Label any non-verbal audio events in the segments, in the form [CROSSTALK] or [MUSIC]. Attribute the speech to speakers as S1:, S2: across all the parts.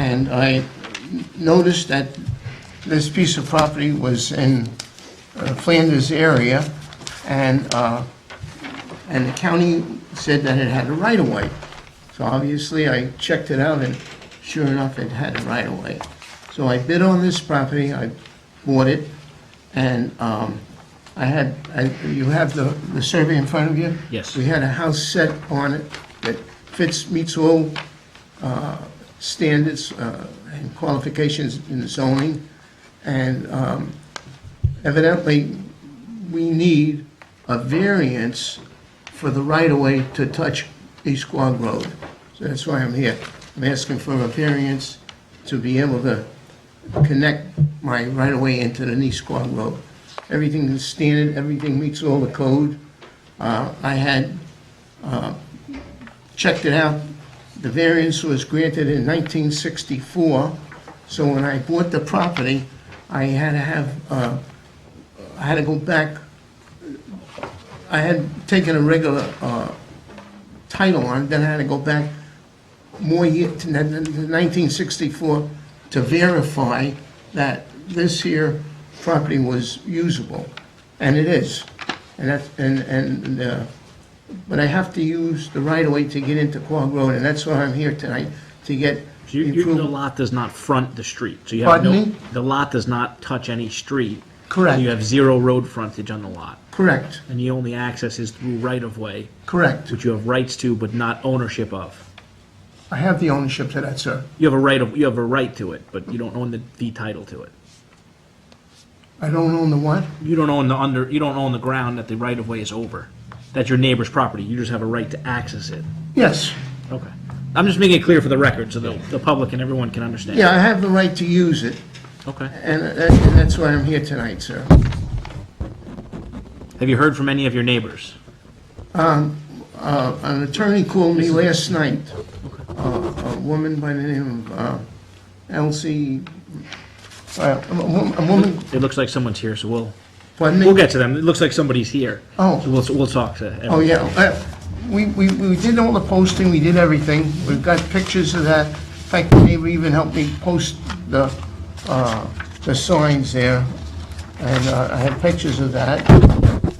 S1: and I noticed that this piece of property was in uh, Flanders area, and, uh, and the county said that it had a right-of-way. So obviously, I checked it out, and sure enough, it had a right-of-way. So I bid on this property, I bought it, and um, I had, I- you have the, the survey in front of you?
S2: Yes.
S1: We had a house set on it that fits, meets all uh, standards uh, and qualifications in the zoning, and um, evidently, we need a variance for the right-of-way to touch East Quogue Road. So that's why I'm here. I'm asking for a variance to be able to connect my right-of-way into the East Quogue Road. Everything is standard, everything meets all the code. Uh, I had checked it out. The variance was granted in 1964, so when I bought the property, I had to have, uh, I had to go back. I had taken a regular uh, title on it, then I had to go back more year, to n- n- 1964, to verify that this here property was usable, and it is. And that's, and, and uh, but I have to use the right-of-way to get into Quogue Road, and that's why I'm here tonight, to get
S2: So you- you- The
S1: improved.
S2: lot does not front the street, so you have no...
S1: Pardon me?
S2: The lot does not touch any street.
S1: Correct.
S2: You have zero road frontage on the lot,
S1: Correct,
S2: and the only access is through right-of-way,
S1: correct.
S2: which you have rights to but not ownership of.
S1: I have the ownership to that, sir.
S2: You have a right of, you have a right to it, but you don't own the, the title to it.
S1: I don't own the what?
S2: You don't own the under, you don't own the ground that the right-of-way is over. That's your neighbor's property, you just have a right to access it.
S1: Yes.
S2: Okay. I'm just making it clear for the record, so the, the public and everyone can understand.
S1: Yeah, I have the right to use it,
S2: Okay.
S1: and that- and that's why I'm here tonight, sir.
S2: Have you heard from any of your neighbors?
S1: Uh, An attorney called me last night, Uh, a woman by the name of uh, Elsie, uh, a wo- a woman,
S2: It looks like someone's here, so we'll,
S1: pardon me?
S2: We'll get to them. It looks like somebody's here.
S1: Oh.
S2: So we'll, we'll talk to
S1: Oh,
S2: everyone.
S1: yeah, uh, we, we, we did all the posting, we did everything, we've got pictures of that. In fact, the neighbor even helped me post the, uh, the signs there, and uh, I have pictures of that,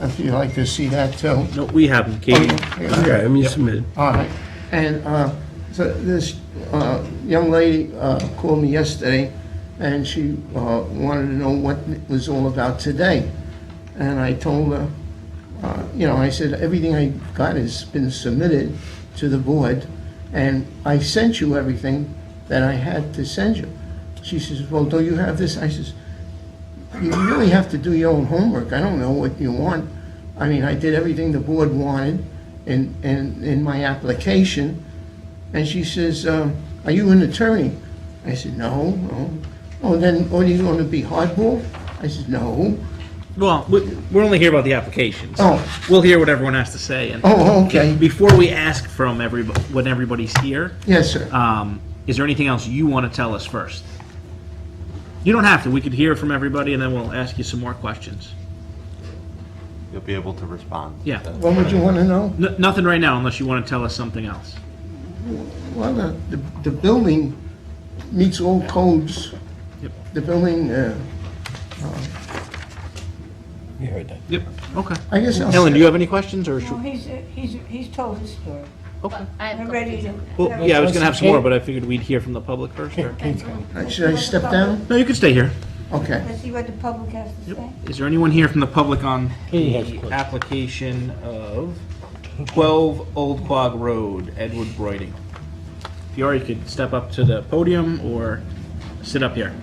S1: if you'd like to see that too.
S2: No, we have them,
S1: Oh,
S2: Katie.
S3: Okay, I mean, submitted.
S1: All right, and uh, so this uh, young lady uh, called me yesterday, and she uh, wanted to know what it was all about today. And I told her, uh, you know, I said, everything I got has been submitted to the board, and I sent you everything that I had to send you. She says, well, don't you have this? I says, you really have to do your own homework. I don't know what you want. I mean, I did everything the board wanted in, in, in my application. And she says, um, are you an attorney? I said, no, no. Oh, then, are you gonna be hardball? I said, no. [LAUGHS]
S2: Well, we, we're only here about the applications.
S1: Oh.
S2: We'll hear what everyone has to say. And
S1: Oh, okay.
S2: before we ask from everybody, when everybody's here,
S1: Yes, sir.
S2: um, is there anything else you want to tell us first? You don't have to. We could hear from everybody and then we'll ask you some more questions.
S4: you'll be able to respond.
S2: Yeah.
S1: What would you wanna know?
S2: N- nothing right now unless you want to tell us something else.
S1: Well, the, the- the building meets all codes.
S2: Yep.
S1: The building, uh,
S3: You heard that.
S2: Yep. Okay.
S1: I guess I'll.
S2: Ellen, do you have any questions or?
S5: No,
S2: should-
S5: he's, uh, he's, he's told his story.
S2: Okay.
S6: I have
S5: I'm
S6: a
S5: ready to.
S2: Well, yeah, I was going to have some more, but I figured we'd hear from the public first. Or...
S1: Should I step down?
S2: No, you can stay here.
S1: Okay.
S5: Let's see what the public has to say.
S2: Is there anyone here from the public on
S3: Katie has a
S2: the
S3: question.
S2: application of 12 Old Quag Road, Edward Broiding? If you are, you could step up to the podium or sit up here.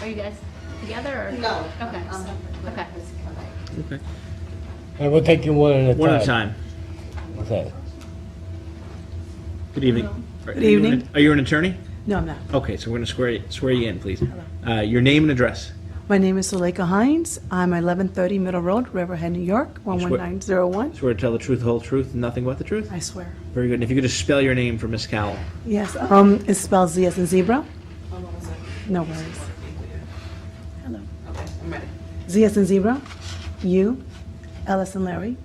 S6: Are you guys together or?
S7: No.
S6: Okay.
S7: I'm separate.
S6: Okay.
S2: Okay.
S3: And we'll take you one at a time.
S2: One at a time.
S3: Okay.
S2: Good evening. Good
S8: evening.
S2: Are you an attorney?
S8: No, I'm not.
S2: Okay, so we're going to swear, you- swear you in, please. Uh, Your name and address.
S8: My name is Zuleika Hines. I'm 1130 Middle Road, Riverhead, New York, 11901.
S2: Swear to tell the truth, the whole truth, and nothing but the truth?
S8: I swear.
S2: Very good. And if you could just spell your name for Miss Cowell.
S8: Yes, um, it's spelled Z as in zebra. No worries. Hello.
S7: Okay, I'm ready.
S8: Z as in zebra, U, L as in Larry,